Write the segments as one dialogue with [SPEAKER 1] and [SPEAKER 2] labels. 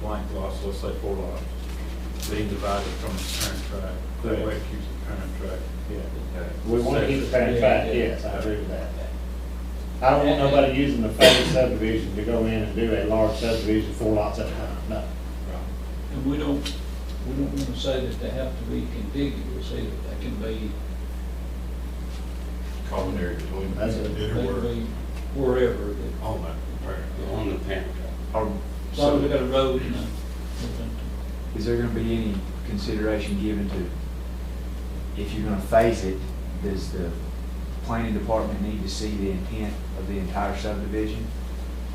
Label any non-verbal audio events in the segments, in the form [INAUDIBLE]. [SPEAKER 1] blank lots, let's say four lots, being divided from the current tract, that way it keeps the current tract.
[SPEAKER 2] Yeah.
[SPEAKER 3] We want to keep the current track, yes, I agree with that. I don't want nobody using the phase subdivision to go in and do a large subdivision, four lots at a time, no.
[SPEAKER 4] And we don't, we don't want to say that they have to be contiguous either, they can be,
[SPEAKER 2] Common area between.
[SPEAKER 3] That's it.
[SPEAKER 4] they
[SPEAKER 1] It'll
[SPEAKER 4] can
[SPEAKER 1] work
[SPEAKER 4] be wherever. that-
[SPEAKER 1] on that.
[SPEAKER 5] on the parent.
[SPEAKER 1] Or-
[SPEAKER 4] As long as we
[SPEAKER 1] So,
[SPEAKER 4] got a road and a.
[SPEAKER 6] Is there gonna be any consideration given to, if you're gonna phase it, does the planning department need to see the intent of the entire subdivision?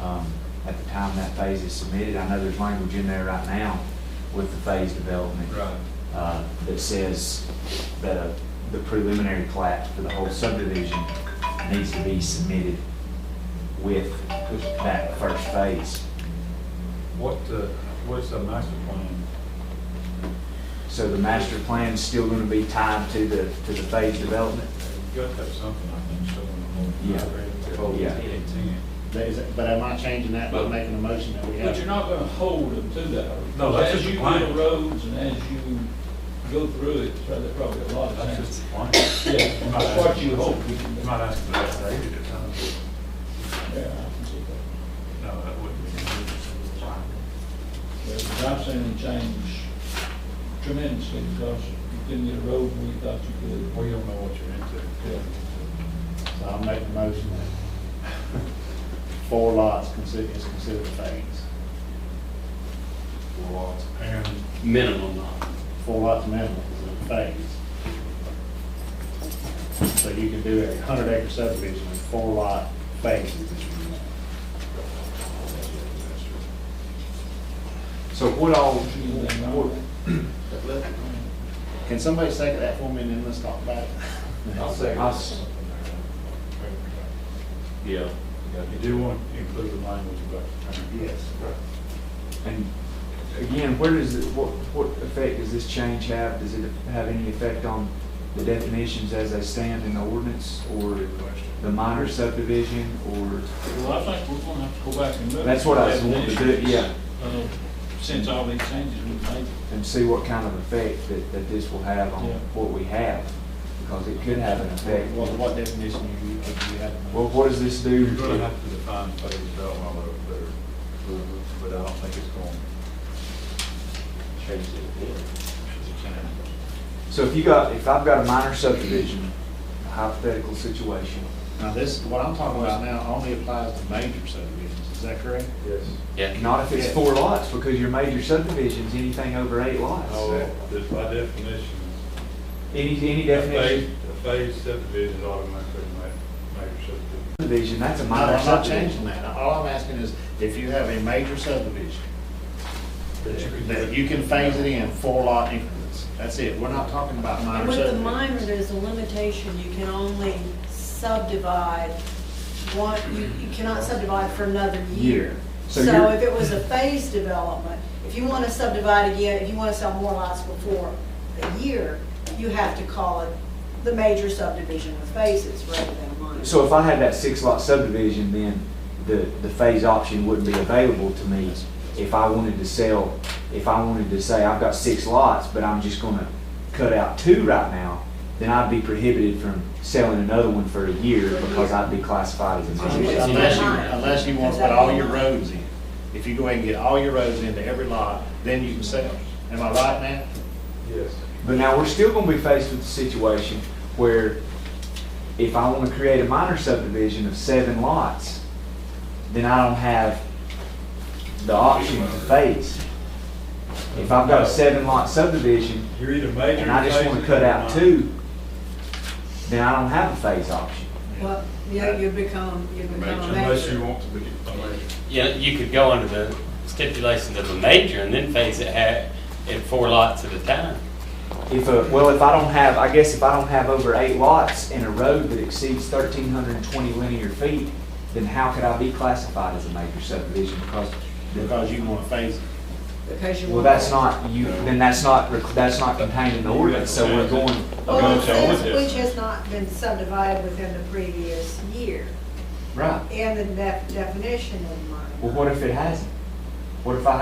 [SPEAKER 6] um, At the time that phase is submitted, I know there's language in there right now with the phase development.
[SPEAKER 1] Right.
[SPEAKER 6] uh, That says that uh, the preliminary plat for the whole subdivision needs to be submitted with that first phase.
[SPEAKER 1] What, uh, what's the master plan?
[SPEAKER 6] So the master plan's still gonna be tied to the, to the phase development?
[SPEAKER 1] You got to have something, I think, showing the
[SPEAKER 6] Yeah.
[SPEAKER 1] whole.
[SPEAKER 6] Yeah.
[SPEAKER 1] Intent.
[SPEAKER 3] That is- But am I changing that by making a motion that we have?
[SPEAKER 4] But you're not going to hold them to that. are you?
[SPEAKER 1] No, that's just
[SPEAKER 4] As
[SPEAKER 1] a
[SPEAKER 4] you
[SPEAKER 1] plan.
[SPEAKER 4] build roads and as you go through it, so there's probably a lot of
[SPEAKER 1] That's
[SPEAKER 4] things.
[SPEAKER 1] just the plan. You
[SPEAKER 4] Yeah, that's what you hope we can do.
[SPEAKER 1] might ask for that later at times.
[SPEAKER 4] Yeah, I can see that.
[SPEAKER 1] No, that wouldn't be.
[SPEAKER 4] But I've seen them change tremendously because you couldn't get a road where you thought you could.
[SPEAKER 1] Well, you don't know what you're into.
[SPEAKER 4] Yeah.
[SPEAKER 3] So I'll make the motion that [LAUGHS] four lots consider, is considered a phase.
[SPEAKER 1] Four lots. And
[SPEAKER 5] Minimum lot.
[SPEAKER 3] Four lots minimum is a phase. So you can do a hundred acre subdivision with four lot phases. if you want.
[SPEAKER 6] So what all,
[SPEAKER 4] Anything wrong with that?
[SPEAKER 3] Can somebody second that for me and then let's talk about it?
[SPEAKER 2] I'll say.
[SPEAKER 6] I'll s-
[SPEAKER 2] Yeah.
[SPEAKER 1] you do want to include the language about the term.
[SPEAKER 3] Yes.
[SPEAKER 6] and again, where does, it- what, what effect does this change have? Does it have any effect on the definitions as they stand in the ordinance, or the minor subdivision, or?
[SPEAKER 4] Well, I think we're gonna have to go back and look.
[SPEAKER 6] That's what I was wanting to do, yeah,
[SPEAKER 4] Uh, Since all these changes we've made,
[SPEAKER 6] and see what kind of effect that, that this will have on
[SPEAKER 4] Yeah.
[SPEAKER 6] what we have, because it could have an effect.
[SPEAKER 3] What, what definition you, you have?
[SPEAKER 6] Well, what does this do?
[SPEAKER 1] You're going to have to define phase development a little better, but I don't think it's going
[SPEAKER 2] Change it.
[SPEAKER 1] to.
[SPEAKER 6] So if you got, if I've got a minor subdivision, a hypothetical situation,
[SPEAKER 3] Now, this, what I'm talking about now only applies to major subdivisions, is that correct?
[SPEAKER 1] Yes.
[SPEAKER 5] Yeah.
[SPEAKER 6] not if it's four lots, because your major subdivision's anything over eight lots.
[SPEAKER 1] Oh, this by definition.
[SPEAKER 6] Any, any
[SPEAKER 1] a phase-
[SPEAKER 6] definition
[SPEAKER 1] A phase subdivision automatically ma- major subdivision.
[SPEAKER 6] of subdivision, that's a
[SPEAKER 3] No,
[SPEAKER 6] minor
[SPEAKER 3] I'm not
[SPEAKER 6] subdivision.
[SPEAKER 3] changing that. All I'm asking is if you have a major subdivision, that you can phase it in four lot increments. That's it. We're not talking about
[SPEAKER 7] And
[SPEAKER 3] minor
[SPEAKER 7] with the minor,
[SPEAKER 3] subdivisions.
[SPEAKER 7] there's a limitation, you can only subdivide one, you you cannot subdivide for another
[SPEAKER 6] Year.
[SPEAKER 7] year.
[SPEAKER 6] So
[SPEAKER 7] So
[SPEAKER 6] you're-
[SPEAKER 7] if it was a phased development, if you want to subdivide again, if you want to sell more lots before a year, you have to call it the major subdivision with phases rather than a minor.
[SPEAKER 6] So if I had that six lot subdivision, then the, the phase option wouldn't be available to me if I wanted to sell, if I wanted to say, I've got six lots, but I'm just gonna cut out two right now, then I'd be prohibited from selling another one for a year because I'd be classified as a minor.
[SPEAKER 3] Unless you, unless you want to put all your roads in. If you go ahead and get all your roads into every lot, then you can sell. Am I right, Matt?
[SPEAKER 1] Yes.
[SPEAKER 6] But now we're still gonna be faced with a situation where if I wanna create a minor subdivision of seven lots, then I don't have the option to phase. If I've got a seven lot subdivision
[SPEAKER 1] You're either major.
[SPEAKER 6] and I just wanna
[SPEAKER 1] phase
[SPEAKER 6] cut
[SPEAKER 1] or
[SPEAKER 6] out
[SPEAKER 1] minor.
[SPEAKER 6] two, then I don't have a phase option.
[SPEAKER 7] Well, yeah, you become, you become a
[SPEAKER 1] Unless you
[SPEAKER 7] major.
[SPEAKER 1] want to be a major.
[SPEAKER 5] Yeah, you could go under the stipulations of a major and then phase it at, at four lots at a time.
[SPEAKER 6] If a, well, if I don't have, I guess if I don't have over eight lots in a road that exceeds thirteen hundred and twenty linear feet, then how could I be classified as a major subdivision? Because, the-
[SPEAKER 3] Because you want to phase it.
[SPEAKER 7] Because you
[SPEAKER 6] well,
[SPEAKER 7] want-
[SPEAKER 6] that's not, you, then that's not, rec- that's not contained in the ordinance, so we're going,
[SPEAKER 7] Well, it
[SPEAKER 1] Okay, so
[SPEAKER 7] says
[SPEAKER 1] what is-
[SPEAKER 7] which has not been subdivided within the previous year.
[SPEAKER 6] right.
[SPEAKER 7] and the def- definition of minor.
[SPEAKER 6] Well, what if it hasn't? What if I